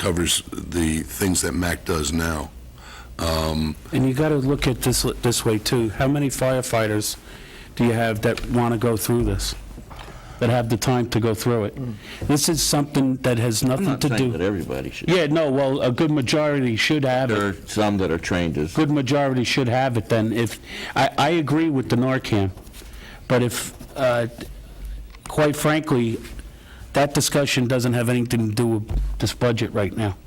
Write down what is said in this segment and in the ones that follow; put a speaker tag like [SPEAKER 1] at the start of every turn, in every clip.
[SPEAKER 1] covers the things that MAC does now. Um,
[SPEAKER 2] And you got to look at this, this way too. How many firefighters do you have that want to go through this? That have the time to go through it? This is something that has
[SPEAKER 3] I'm
[SPEAKER 2] nothing
[SPEAKER 3] not
[SPEAKER 2] to
[SPEAKER 3] saying that
[SPEAKER 2] do.
[SPEAKER 3] everybody should.
[SPEAKER 2] Yeah, no, well, a good majority should have
[SPEAKER 3] There are
[SPEAKER 2] it.
[SPEAKER 3] some that are trained as,
[SPEAKER 2] Good majority should have it then if, I, I agree with the Narcan. But if, uh, quite frankly, that discussion doesn't have anything to do with this budget right now.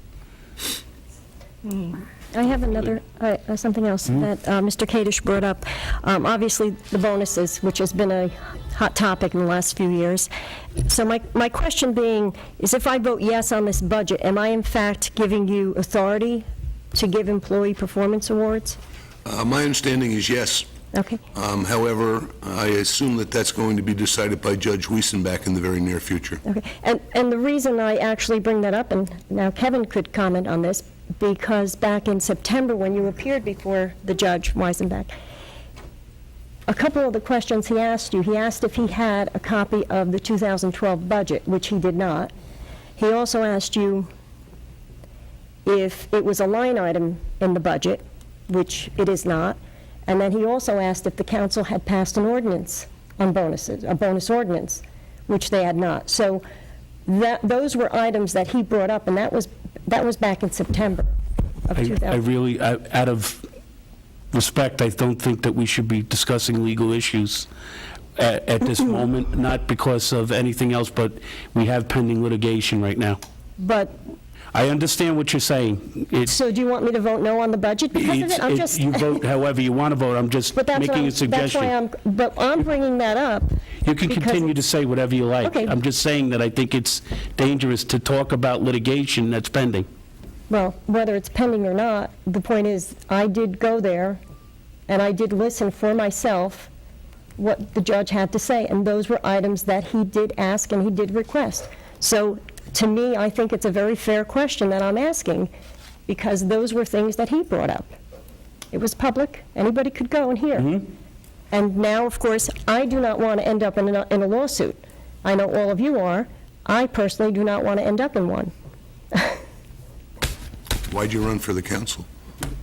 [SPEAKER 4] I have another, uh, uh, something else that uh, Mr. Kadesh brought up. Um, Obviously, the bonuses, which has been a hot topic in the last few years. So my, my question being, is if I vote yes on this budget, am I in fact giving you authority to give employee performance awards?
[SPEAKER 1] uh, My understanding is yes.
[SPEAKER 4] Okay,
[SPEAKER 1] Um, However, I assume that that's going to be decided by Judge Weisenbach in the very near future.
[SPEAKER 4] okay. And, and the reason I actually bring that up, and now Kevin could comment on this, because back in September, when you appeared before the judge, Weisenbeck, a couple of the questions he asked you, he asked if he had a copy of the 2012 budget, which he did not. He also asked you if it was a line item in the budget, which it is not. And then he also asked if the council had passed an ordinance on bonuses, a bonus ordinance, which they had not. So that, those were items that he brought up, and that was, that was back in September of
[SPEAKER 2] I
[SPEAKER 4] 2000.
[SPEAKER 2] I really, I- out of respect, I don't think that we should be discussing legal issues at at this moment, not because of anything else, but we have pending litigation right now.
[SPEAKER 4] But,
[SPEAKER 2] I understand what you're saying. It's-
[SPEAKER 4] so do you want me to vote no on the budget because of
[SPEAKER 2] it's-
[SPEAKER 4] it? I'm
[SPEAKER 2] it-
[SPEAKER 4] just.
[SPEAKER 2] You vote however you want to vote, I'm just
[SPEAKER 4] But that's what
[SPEAKER 2] making
[SPEAKER 4] I'm-
[SPEAKER 2] a
[SPEAKER 4] That's why
[SPEAKER 2] suggestion.
[SPEAKER 4] I'm, but I'm bringing that up.
[SPEAKER 2] You can
[SPEAKER 4] because-
[SPEAKER 2] continue to say whatever you like.
[SPEAKER 4] Okay.
[SPEAKER 2] I'm just saying that I think it's dangerous to talk about litigation that's pending.
[SPEAKER 4] Well, whether it's pending or not, the point is, I did go there, and I did listen for myself what the judge had to say, and those were items that he did ask and he did request. So, to me, I think it's a very fair question that I'm asking, because those were things that he brought up. It was public, anybody could go and hear. And now, of course, I do not want to end up in a in a lawsuit. I know all of you are. I personally do not want to end up in one.
[SPEAKER 1] Why'd you run for the council?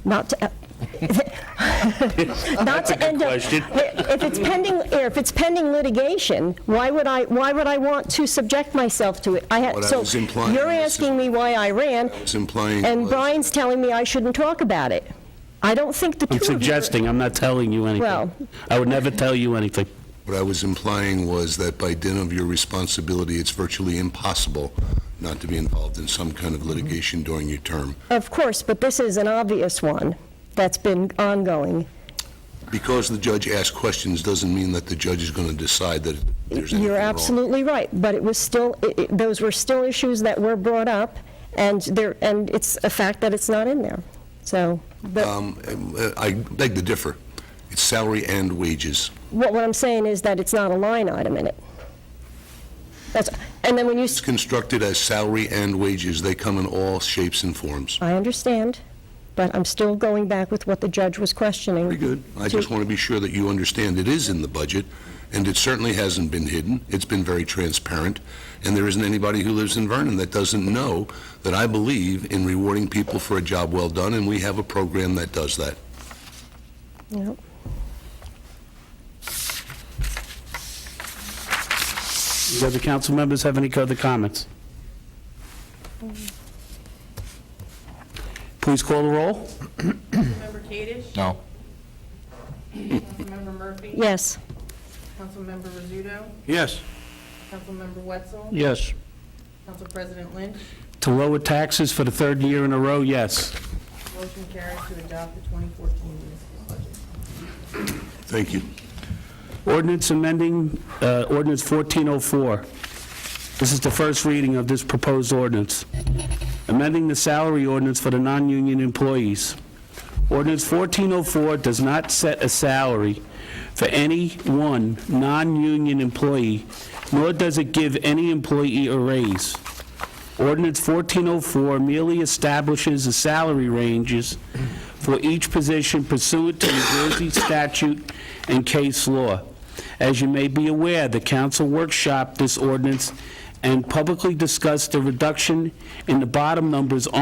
[SPEAKER 4] not to, uh, not to end up. If it's pending, or if it's pending litigation, why would I, why would I want to subject myself to it? I had,
[SPEAKER 1] What I
[SPEAKER 4] so
[SPEAKER 1] was implying
[SPEAKER 4] you're
[SPEAKER 1] is-
[SPEAKER 4] asking me why I ran,
[SPEAKER 1] It's implying...
[SPEAKER 4] and Brian's telling me I shouldn't talk about it. I don't think the two
[SPEAKER 2] I'm
[SPEAKER 4] of you. are-
[SPEAKER 2] suggesting, I'm not telling you anything.
[SPEAKER 4] Well-
[SPEAKER 2] I would never tell you anything.
[SPEAKER 1] What I was implying was that by dint of your responsibility, it's virtually impossible not to be involved in some kind of litigation during your term.
[SPEAKER 4] Of course, but this is an obvious one that's been ongoing.
[SPEAKER 1] Because the judge asked questions doesn't mean that the judge is going to decide that there's anything
[SPEAKER 4] You're
[SPEAKER 1] wrong.
[SPEAKER 4] absolutely right, but it was still, it- it- those were still issues that were brought up, and there, and it's a fact that it's not in there. So, but
[SPEAKER 1] Um, uh, I beg to differ. It's salary and wages.
[SPEAKER 4] what what I'm saying is that it's not a line item in it. That's, and then when you,
[SPEAKER 1] It's
[SPEAKER 4] s-
[SPEAKER 1] constructed as salary and wages. They come in all shapes and forms.
[SPEAKER 4] I understand, but I'm still going back with what the judge was questioning.
[SPEAKER 1] Very good. I just want to be sure that you understand it is in the budget, and it certainly hasn't been hidden. It's been very transparent, and there isn't anybody who lives in Vernon that doesn't know that I believe in rewarding people for a job well done, and we have a program that does that.
[SPEAKER 4] Yep.
[SPEAKER 2] Do other council members have any other comments? Please call the roll.
[SPEAKER 5] Councilmember Kadesh?
[SPEAKER 6] No.
[SPEAKER 5] Councilmember Murphy?
[SPEAKER 4] Yes,
[SPEAKER 5] Councilmember Rizzuto?
[SPEAKER 6] Yes.
[SPEAKER 5] Councilmember Wetzel?
[SPEAKER 6] Yes.
[SPEAKER 5] Council President Lynch?
[SPEAKER 2] To lower taxes for the third year in a row, yes.
[SPEAKER 5] Motion carries to adopt the 2014 municipal budget.
[SPEAKER 1] Thank you.
[SPEAKER 2] Ordinance amending, uh, ordinance 1404. This is the first reading of this proposed ordinance. Amending the salary ordinance for the non-union employees. Ordinance 1404 does not set a salary for any one non-union employee, nor does it give any employee a raise. Ordinance 1404 merely establishes the salary ranges for each position pursuant to New Jersey statute and case law. As you may be aware, the council workshop this ordinance and publicly discussed the reduction in the bottom numbers on